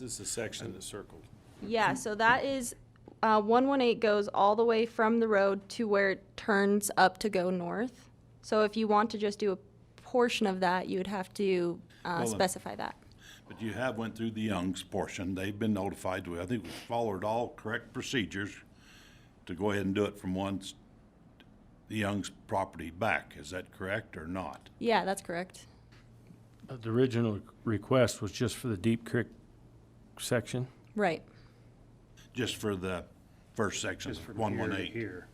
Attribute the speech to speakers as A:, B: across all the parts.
A: This is the section that's circled.
B: Yeah, so that is, uh, one one eight goes all the way from the road to where it turns up to go north. So if you want to just do a portion of that, you would have to, uh,
A: Well, then-
B: specify that.
A: But you have went through the Young's portion. They've been notified. We- I think we followed all correct procedures to go ahead and do it from one, s- the Young's property back. Is that correct or not?
B: Yeah, that's correct.
C: Uh, The original request was just for the Deep Creek section?
B: Right.
A: Just for the first section,
D: Just from
A: one
D: here
A: one
D: to
A: eight.
D: Here.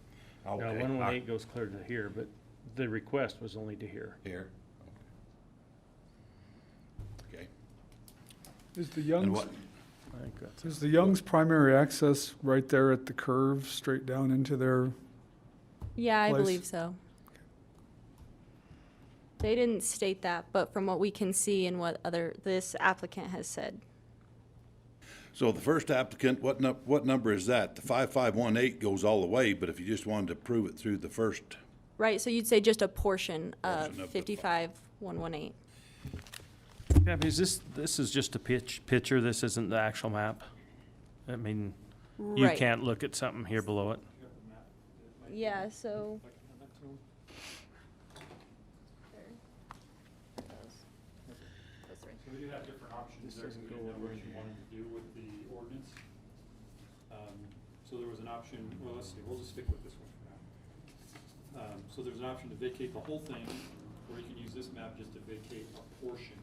D: Now, one one eight goes clear to here, but the request was only to here.
A: Here. Okay.
E: Is the
A: And
E: Young's,
A: what,
C: I think that's
E: is the Young's primary access right there at the curve, straight down into their,
B: Yeah, I
E: Place.
B: believe so. They didn't state that, but from what we can see and what other, this applicant has said.
A: so the first applicant, what nu- what number is that? The five five one eight goes all the way, but if you just wanted to prove it through the first uh,
B: Right, so you'd say just a portion of
A: Portion of the-
B: fifty-five one one eight.
C: Yeah, because this, this is just a pitch, picture, this isn't the actual map. I mean, you
B: Right.
C: can't look at something here below it.
B: Yeah, so.
F: So we do have different options there, depending on what you wanted to do with the ordinance. Um, So there was an option, well, let's see, we'll just stick with this one for now. Um, So there's an option to vacate the whole thing, or you can use this map just to vacate a portion.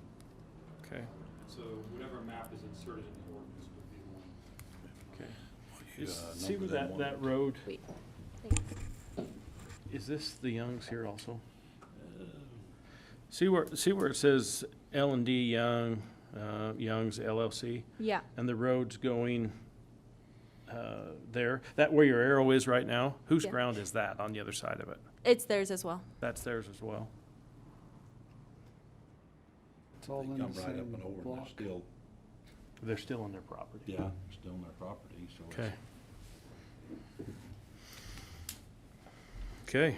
C: Okay,
F: So whatever map is inserted in the ordinance would be the one.
D: Okay.
A: Yeah,
D: See
A: number
D: where
A: that
D: that,
A: one.
D: that road,
B: Wait.
D: is this the Youngs here also?
C: see where, see where it says L and D Young, uh, Young's LLC?
B: Yeah,
C: And the road's going, uh, there, that where your arrow is right now? Whose
B: Yeah.
C: ground is that on the other side of it?
B: it's theirs as well.
C: That's theirs as well.
E: it's all
A: They
E: in
A: come
E: the
A: right up
E: same
A: and over and
E: block?
A: they're still,
D: They're still on their property.
A: yeah, still on their property, so. it's-
C: Okay. Okay.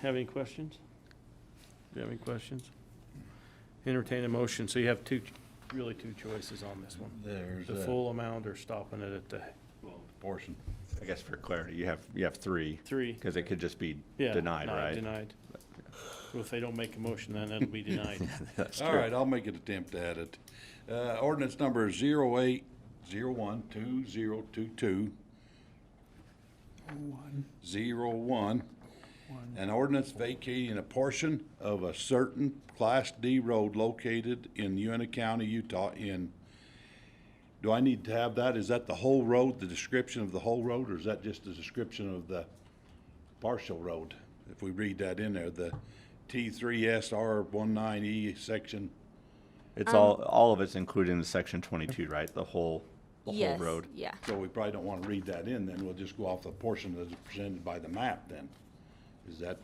C: Have any questions? Do you have any questions? Entertain a motion. So you have two, really two choices on this one.
A: There's
C: The
A: a
C: full amount or stopping it at the
A: portion.
G: I guess for clarity, you have, you have three,
C: three.
G: because it could just be
C: Yeah,
G: denied,
C: not
G: right?
C: Denied. Well, if they don't make a motion, then it'll be denied.
G: That's
A: All
G: true.
A: right, I'll make an attempt at it. Uh, ordinance number zero eight zero one two zero two two
E: One,
A: zero one.
E: one.
A: An ordinance vacating a portion of a certain Class D road located in Uena County, Utah in, do I need to have that? Is that the whole road, the description of the whole road, or is that just the description of the partial road? If we read that in there, the T three S R one nine E section,
G: It's all, all of it's included in section twenty-two, right? The whole, the whole
B: Yes,
G: road.
B: Yeah,
A: so we probably don't want to read that in, then we'll just go off the portion that's presented by the map then. Is that?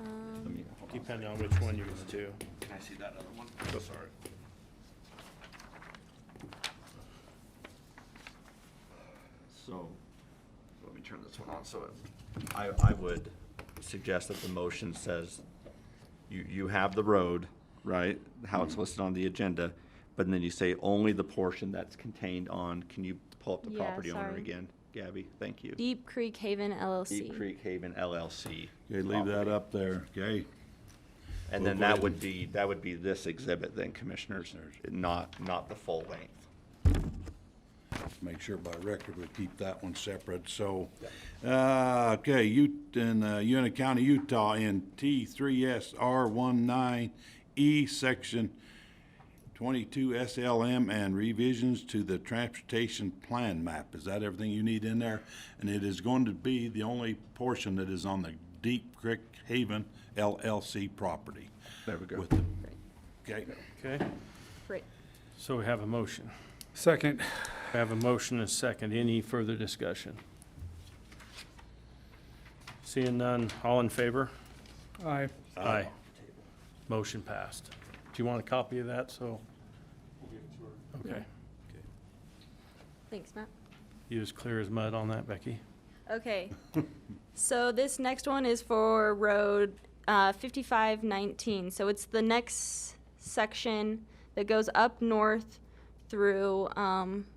A: Let me- hold on.
C: Depending on which one you use to.
A: Can I see that other one? So sorry.
G: So, let me turn this one on, so it- I, I would suggest that the motion says, you, you have the road, right? How
B: Mm-hmm.
G: it's listed on the agenda, but then you say only the portion that's contained on, can you pull up the
B: Yeah,
G: property owner
B: sorry.
G: again? Gabby, thank you.
B: Deep Creek Haven LLC.
G: Deep Creek Haven LLC.
A: Okay, leave that
G: property.
A: up there, okay?
G: And
A: We'll
G: then
A: go ahead
G: that would
A: and-
G: be, that would be this exhibit then, commissioners, not, not the full length.
A: Make sure by record we keep that one separate, so. Uh, okay, you, in, uh, Uena County, Utah, in T three S R one nine E, section twenty-two SLM and revisions to the transportation plan map. Is that everything you need in there? And it is going to be the only portion that is on the Deep Creek Haven LLC property.
G: There we
A: With the- Okay,
C: Okay,
B: Right.
C: so we have a motion.
E: Second,
C: I have a motion and a second. Any further discussion? Seeing none, all in favor?
E: aye.
C: Aye. Motion passed. Do you want a copy of that, so?
F: We'll give it to her.
C: Okay.
B: Thanks, Matt.
C: You as clear as mud on that, Becky?
B: Okay. So this next one is for road uh, 5519. So it's the next section that goes up north through um,